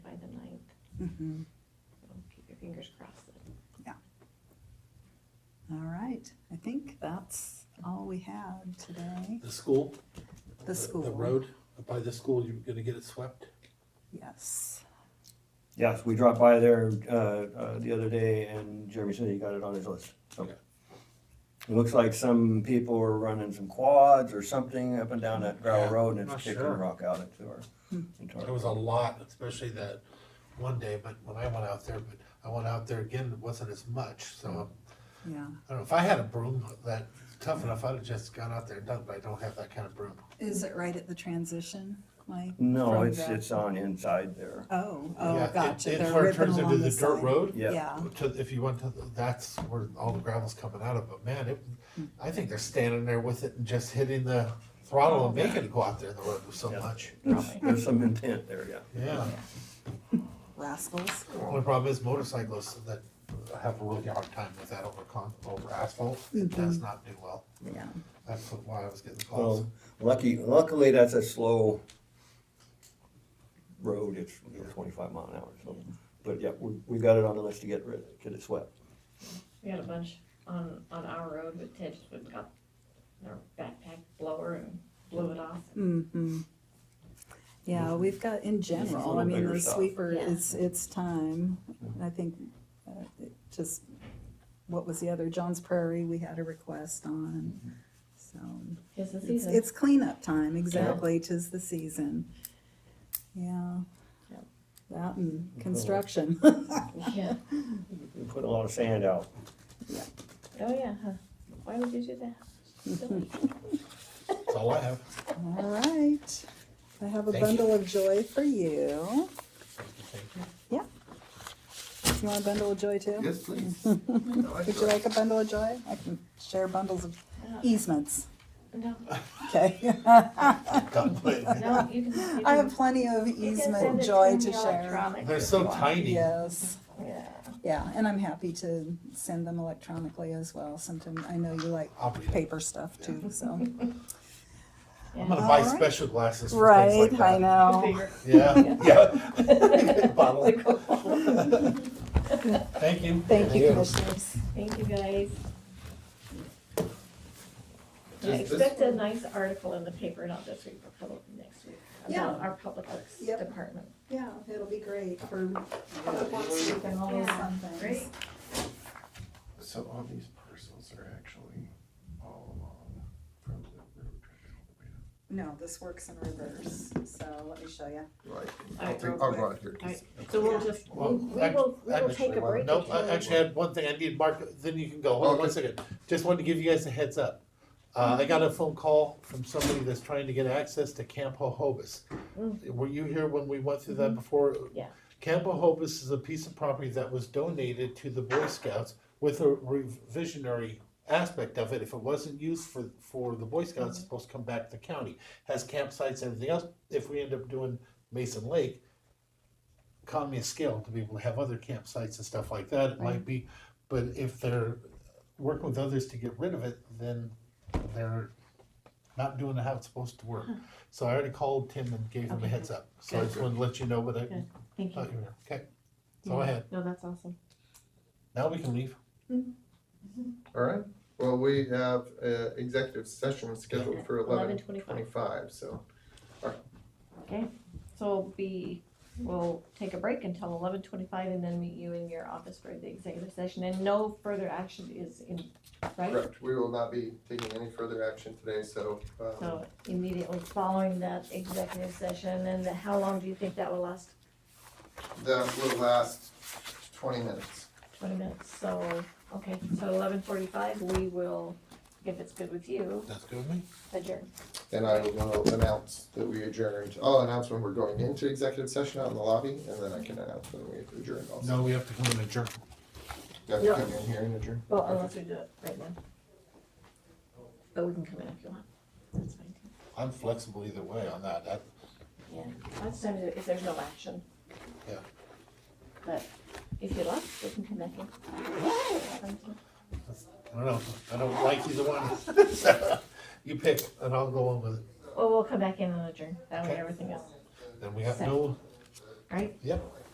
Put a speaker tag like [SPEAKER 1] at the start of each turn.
[SPEAKER 1] Mhm.
[SPEAKER 2] So keep your fingers crossed.
[SPEAKER 1] All right, I think that's all we had today.
[SPEAKER 3] The school?
[SPEAKER 1] The school.
[SPEAKER 3] The road by the school, you're gonna get it swept?
[SPEAKER 1] Yes.
[SPEAKER 4] Yes, we dropped by there, uh, uh, the other day and Jeremy said he got it on his list, so.
[SPEAKER 3] Okay.
[SPEAKER 4] It looks like some people were running some quads or something up and down that
[SPEAKER 3] Yeah,
[SPEAKER 4] gravel road and
[SPEAKER 3] not
[SPEAKER 4] it's kicking
[SPEAKER 3] sure.
[SPEAKER 4] rock out into our.
[SPEAKER 1] Hmm.
[SPEAKER 4] into our-
[SPEAKER 3] There was a lot, especially that one day, but when I went out there, but I went out there again, it wasn't as much, so.
[SPEAKER 1] Yeah,
[SPEAKER 3] I don't know, if I had a broom that tough enough, I'd have just gone out there and done, but I don't have that kind of broom.
[SPEAKER 1] is it right at the transition, Mike?
[SPEAKER 4] No,
[SPEAKER 1] From
[SPEAKER 4] it's,
[SPEAKER 1] the-
[SPEAKER 4] it's on inside there.
[SPEAKER 1] Oh,
[SPEAKER 3] Yeah,
[SPEAKER 1] oh,
[SPEAKER 3] it-
[SPEAKER 1] gotcha.
[SPEAKER 3] it-
[SPEAKER 1] They're
[SPEAKER 3] where it
[SPEAKER 1] ripping
[SPEAKER 3] turns
[SPEAKER 1] along
[SPEAKER 3] into the
[SPEAKER 1] the
[SPEAKER 3] dirt
[SPEAKER 1] side.
[SPEAKER 3] road?
[SPEAKER 4] Yeah.
[SPEAKER 1] Yeah,
[SPEAKER 3] To, if you went to, the- that's where all the gravel's coming out of, but man, it, I think they're standing there with it and just hitting the throttle
[SPEAKER 1] Oh,
[SPEAKER 3] and making it go out there the road so
[SPEAKER 4] Yeah.
[SPEAKER 3] much.
[SPEAKER 4] There's, there's some intent there, yeah.
[SPEAKER 3] Yeah,
[SPEAKER 1] rascals.
[SPEAKER 3] only problem is motorcyclists that have a really hard time with that over con, over asphalt,
[SPEAKER 5] Mm-hmm.
[SPEAKER 3] it does not do well.
[SPEAKER 1] Yeah.
[SPEAKER 3] That's what- why I was getting calls.
[SPEAKER 4] Well, lucky, luckily that's a slow road, it's you know, twenty-five mile an hour, so. But yeah, we, we got it on the list to get rid, get it swept.
[SPEAKER 2] We had a bunch on, on our road, but Ted just went and got our backpack blower and blew it off.
[SPEAKER 1] Mm-hmm. Yeah, we've got, in general, I
[SPEAKER 4] Mm-hmm. little
[SPEAKER 1] mean,
[SPEAKER 4] bigger
[SPEAKER 1] the
[SPEAKER 4] stuff.
[SPEAKER 1] sweeper,
[SPEAKER 2] Yeah.
[SPEAKER 1] it's, it's time. I think, uh, it just, what was the other, John's Prairie, we had a request on, so.
[SPEAKER 2] It's the
[SPEAKER 1] It's,
[SPEAKER 2] season.
[SPEAKER 1] it's cleanup time, exactly, tis the season. Yeah.
[SPEAKER 2] Yep. Mm-hmm.
[SPEAKER 1] That and construction.
[SPEAKER 2] Yeah.
[SPEAKER 4] We put a lot of sand out.
[SPEAKER 2] Oh, yeah, huh. Why would you do that? Silly.
[SPEAKER 3] That's all I have.
[SPEAKER 1] All right. I have a
[SPEAKER 3] Thank you.
[SPEAKER 1] bundle of joy for you.
[SPEAKER 3] Thank you.
[SPEAKER 1] You want a bundle of joy too?
[SPEAKER 5] Yes, please.
[SPEAKER 1] Would you like a bundle of joy? I can share bundles of easements.
[SPEAKER 2] No,
[SPEAKER 1] Okay.
[SPEAKER 3] God bless you.
[SPEAKER 2] no, you can. you can-
[SPEAKER 1] I have plenty of
[SPEAKER 2] you can send
[SPEAKER 1] easement
[SPEAKER 2] it
[SPEAKER 1] joy
[SPEAKER 2] me
[SPEAKER 1] to share.
[SPEAKER 2] electronic
[SPEAKER 3] They're
[SPEAKER 2] if
[SPEAKER 3] so
[SPEAKER 2] you want.
[SPEAKER 3] tiny.
[SPEAKER 1] Yes,
[SPEAKER 2] Yeah.
[SPEAKER 1] yeah, and I'm happy to send them electronically as well. Sometimes, I know you like
[SPEAKER 3] I'll read it.
[SPEAKER 1] paper stuff too, so.
[SPEAKER 3] I'm gonna
[SPEAKER 1] All
[SPEAKER 3] buy
[SPEAKER 1] right.
[SPEAKER 3] special glasses for things like
[SPEAKER 1] Right, I
[SPEAKER 3] that.
[SPEAKER 1] know.
[SPEAKER 2] Bigger.
[SPEAKER 3] Yeah, yeah. Bottle. Thank you.
[SPEAKER 1] Thank you, commissioners.
[SPEAKER 2] Thank you, guys. I
[SPEAKER 5] Just this
[SPEAKER 2] expect a nice article in the paper, not this week, but probably next week,
[SPEAKER 1] Yeah.
[SPEAKER 2] about our public works
[SPEAKER 1] Yep.
[SPEAKER 2] department.
[SPEAKER 1] Yeah, it'll be great for public works week and all those fun things.
[SPEAKER 2] Great.
[SPEAKER 5] So all these parcels are actually all along from the road. all
[SPEAKER 1] No, this works in reverse, so let me show you.
[SPEAKER 5] the way up. Right,
[SPEAKER 2] All
[SPEAKER 5] I'll
[SPEAKER 2] right,
[SPEAKER 5] take,
[SPEAKER 1] real
[SPEAKER 5] I'll
[SPEAKER 1] quick.
[SPEAKER 5] go out here. 'cause-
[SPEAKER 2] So we'll just, we
[SPEAKER 3] Well,
[SPEAKER 2] we
[SPEAKER 3] act-
[SPEAKER 2] will, we will
[SPEAKER 3] actually,
[SPEAKER 2] take a break.
[SPEAKER 3] Nope,
[SPEAKER 2] if
[SPEAKER 3] I
[SPEAKER 2] you-
[SPEAKER 3] actually had one thing I need, Mark, then you can go, hold on one
[SPEAKER 5] Okay.
[SPEAKER 3] second, just wanted to give you guys a heads up. Uh, I got a phone call from somebody that's trying to get access to Camp Hohobus.
[SPEAKER 2] Mm. Mm-hmm.
[SPEAKER 3] Were you here when we went through that before?
[SPEAKER 2] Yeah.
[SPEAKER 3] Camp Hohobus is a piece of property that was donated to the Boy Scouts with a revisionary aspect of it, if it wasn't used for, for the Boy Scouts, it's
[SPEAKER 2] Mm-hmm.
[SPEAKER 3] supposed to come back to the county. Has campsites and everything else, if we end up doing Mason Lake, economy of scale to be able to have other campsites and stuff like that, it might be, but if they're working with others to get rid of it, then they're not doing how it's supposed to work. So I already called Tim and gave him a
[SPEAKER 2] Okay,
[SPEAKER 3] heads up, so I just wanted to let you know what I
[SPEAKER 2] Good. Thank
[SPEAKER 3] thought
[SPEAKER 2] you.
[SPEAKER 3] you were, okay? So uh, go ahead,
[SPEAKER 2] No, that's awesome.
[SPEAKER 3] now we can leave.
[SPEAKER 5] All right, well, we have, uh, executive session scheduled for
[SPEAKER 2] Eleven
[SPEAKER 5] eleven
[SPEAKER 2] twenty-five,
[SPEAKER 5] twenty-five, so.
[SPEAKER 2] okay. So we'll be, we'll take a break until eleven twenty-five and then meet you in your office for the executive session and no further action is in, right?
[SPEAKER 5] Correct, we will not be taking any further action today, so, um,
[SPEAKER 2] So immediately following that executive session and the- how long do you think that will last?
[SPEAKER 5] that will last twenty minutes.
[SPEAKER 2] Twenty minutes, so, okay, so eleven forty-five, we will, if it's good with you,
[SPEAKER 3] That's good with me.
[SPEAKER 2] adjourn.
[SPEAKER 5] And I will announce that we adjourned. I'll announce when we're going into executive session out in the lobby, and then I can announce when we adjourned also.
[SPEAKER 3] No, we have to come and adjourn.
[SPEAKER 5] You have to come in here and adjourn.
[SPEAKER 2] Well, unless we do it right now. But we can come in if you want, that's fine too.
[SPEAKER 3] I'm flexible either way on that, that,
[SPEAKER 2] Yeah, that's time to, if there's no action.
[SPEAKER 3] Yeah.
[SPEAKER 2] But if you like, we can come back in.
[SPEAKER 3] I don't know, I don't like either one. You pick, and I'll go on with it,
[SPEAKER 2] Well, we'll come back in and adjourn, that way
[SPEAKER 3] Okay.
[SPEAKER 2] everything is,
[SPEAKER 3] then we have no,
[SPEAKER 2] right?
[SPEAKER 3] yep,